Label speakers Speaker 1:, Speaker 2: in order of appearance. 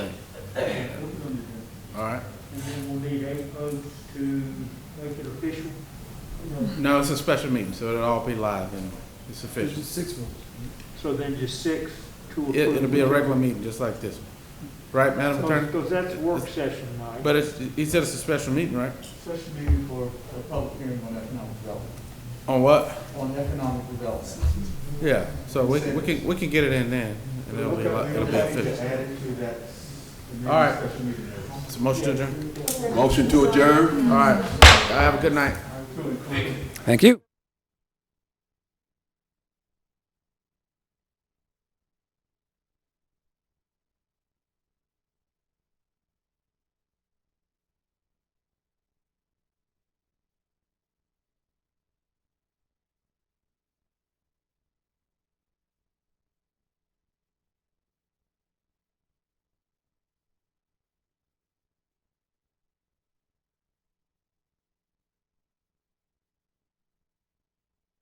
Speaker 1: all right.
Speaker 2: and then we'll need eight votes to make it official. You know,
Speaker 1: No, it's a special meeting, so it'll all be live and it's official.
Speaker 3: Six votes.
Speaker 2: So then just six to approve.
Speaker 1: It, it'll be a regular meeting, just like this one. Right, Madam Attorney?
Speaker 2: Because that's a work session night.
Speaker 1: But it's, he said it's a special meeting, right?
Speaker 4: Special meeting for a public hearing on economic development,
Speaker 1: On what?
Speaker 4: on economic development.
Speaker 1: Yeah, so we, we can, we can get it in then, and it'll be, li- it'll be official.
Speaker 4: Add it to that.
Speaker 1: All right.
Speaker 4: Special meeting. notice.
Speaker 1: It's a motion to adjourn?
Speaker 5: Motion to adjourn?
Speaker 1: All right, Y'all have a good night.
Speaker 4: All right, cool.
Speaker 5: Thank you.